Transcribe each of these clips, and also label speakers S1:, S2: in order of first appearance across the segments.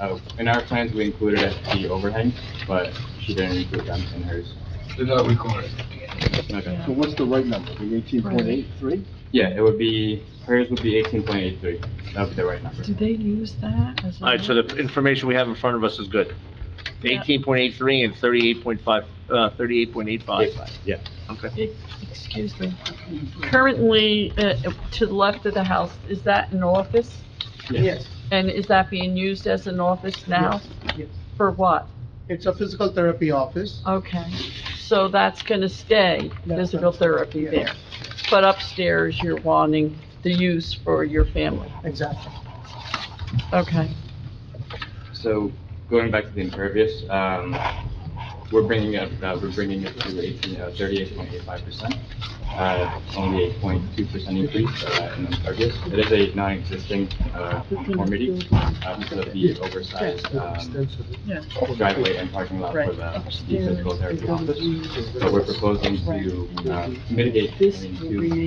S1: Uh, in our plans, we included the overhang, but she didn't include them in hers.
S2: They're not recorded.
S1: Okay.
S3: So what's the right number, the eighteen point eight three?
S1: Yeah, it would be, hers would be eighteen point eight three. That would be the right number.
S4: Do they use that as a?
S5: All right, so the information we have in front of us is good.
S4: Yeah.
S5: Eighteen point eight three and thirty-eight point five, uh, thirty-eight point eight five.
S1: Yeah.
S5: Okay.
S4: Ex- Excuse me. Currently, uh, to the left of the house, is that an office?
S6: Yes,
S4: And is that being used as an office now?
S6: yes.
S4: For what?
S6: It's a physical therapy office.
S4: Okay, so that's gonna stay
S6: That's
S4: physical
S6: right.
S4: therapy
S6: Yeah.
S4: there. But upstairs, you're wanting the use for your family.
S6: Exactly.
S4: Okay.
S1: So going back to the impervious, um, we're bringing it, uh, we're bringing it to eighteen, uh, thirty-eight point eight five percent. Uh, only a point two percent increase, uh, in impervious. It is a non-existing, uh, conformity, uh, because of the oversized, um,
S4: Yeah.
S1: driveway and parking lot for the the physical therapy office. So we're proposing to, uh, mitigate, I mean,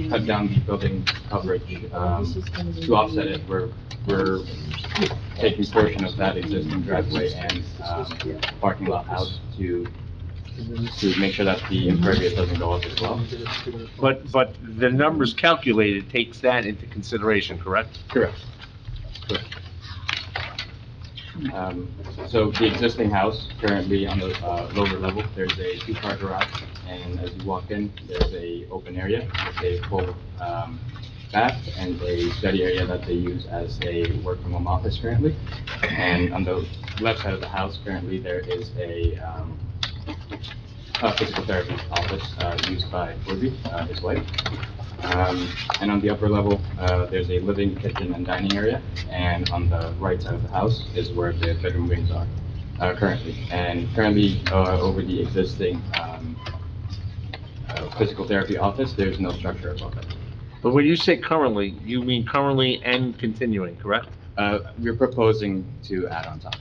S1: to cut down the building coverage, um, to offset it, we're, we're taking portion of that existing driveway and, um, parking lot out to, to make sure that the impervious doesn't go up as well.
S5: But, but the numbers calculated takes that into consideration, correct?
S1: Correct. Um, so the existing house currently on the, uh, lower level, there's a two-car garage, and as you walk in, there's a open area, with a full, um, bath and a study area that they use as a work-from-home office currently. And on the left side of the house currently, there is a, um, a physical therapy office, uh, used by Woody, uh, his wife. Um, And on the upper level, uh, there's a living kitchen and dining area, and on the right side of the house is where the bedroom wings are uh, currently. And currently, uh, over the existing um, uh, physical therapy office, there's no structure above it.
S5: But when you say currently, you mean currently and continuing, correct?
S1: Uh, We're proposing to add on top.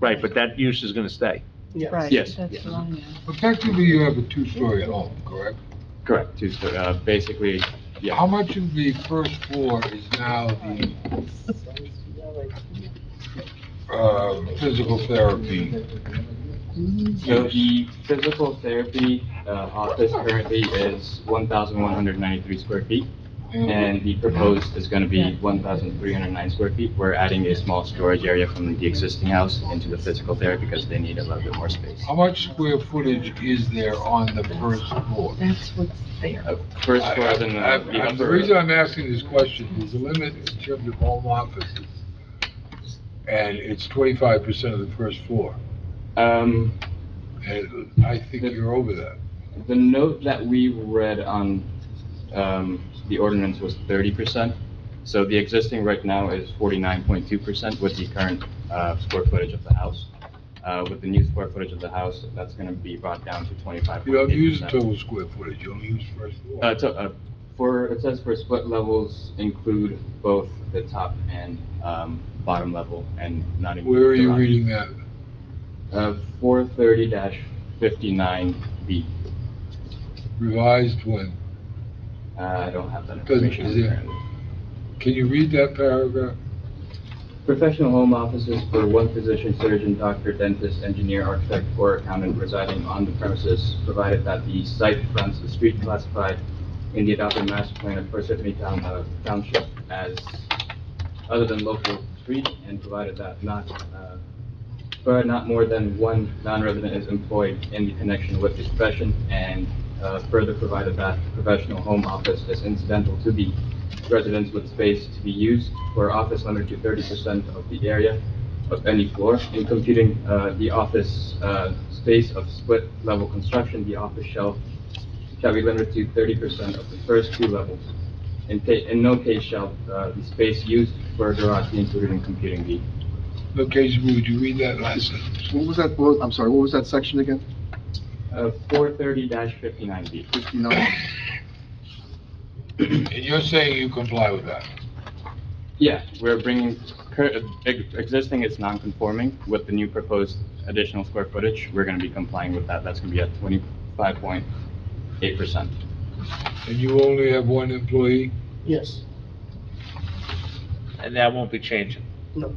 S5: Right, but that use is gonna stay.
S6: Yes.
S4: Right,
S1: Yes,
S4: that's
S1: yes.
S4: what I know.
S2: Effectively, you have a two-story home, correct?
S1: Correct. To, so, uh, basically,
S2: How
S1: yeah,
S2: much of the first floor is now the, um, physical therapy?
S1: so the physical therapy uh, office currently is 1,193 square feet. And the proposed is gonna be one thousand three hundred nine square feet. We're adding a small storage area from the existing house into the physical there because they need a little bit more space.
S2: How much square footage is there on the first floor?
S4: That's what's there.
S1: Uh, First floor is in
S2: I-
S1: uh, the
S2: I- The
S1: upper,
S2: reason I'm asking this question is the limit in terms of home offices, and it's twenty-five percent of the first floor,
S1: um,
S2: and I think you're over that.
S1: the note that we read on, um, the ordinance was thirty percent. So the existing right now is forty-nine point two percent with the current, uh, square footage of the house. Uh, with the new square footage of the house, that's gonna be brought down to twenty-five
S2: You
S1: point eight
S2: don't
S1: percent.
S2: use total square footage, you only use first floor.
S1: Uh, to, uh, for, it says for split levels include both the top and, um, bottom level and not include.
S2: Where are you
S1: garage.
S2: reading that?
S1: Uh, four thirty dash fifty-nine B.
S2: Revised one.
S1: Uh, I don't have that
S2: Doesn't-
S1: information.
S2: is it-
S1: currently.
S2: Can you read that paragraph?
S1: Professional home offices for one physician, surgeon, doctor, dentist, engineer, architect, or accountant residing on the premises, provided that the site fronts the street classified in the adopted master plan of Parsippany Town, uh, Township as, other than local street, and provided that not, uh, but not more than one non-resident is employed in the connection with the profession, and, uh, further provided that the professional home office is incidental to the residents with space to be used for office limited to thirty percent of the area of any floor. In computing, uh, the office, uh, space of split level construction, the office shall, shall be limited to thirty percent of the first two levels. In ca, in no case shall, uh, the space used for a garage be included in computing the
S2: Location, would you read that last sentence?
S3: What was that, what- I'm sorry, what was that section again?
S1: Uh, 430-59B.
S3: Fifty-nine?
S2: And you're saying you comply with that?
S1: Yeah, we're bringing, cur- ex- existing is non-conforming with the new proposed additional square footage. We're going to be complying with that. That's going to be at 25.8%.
S2: And you only have one employee?
S6: Yes.
S5: And that won't be changing.
S6: No.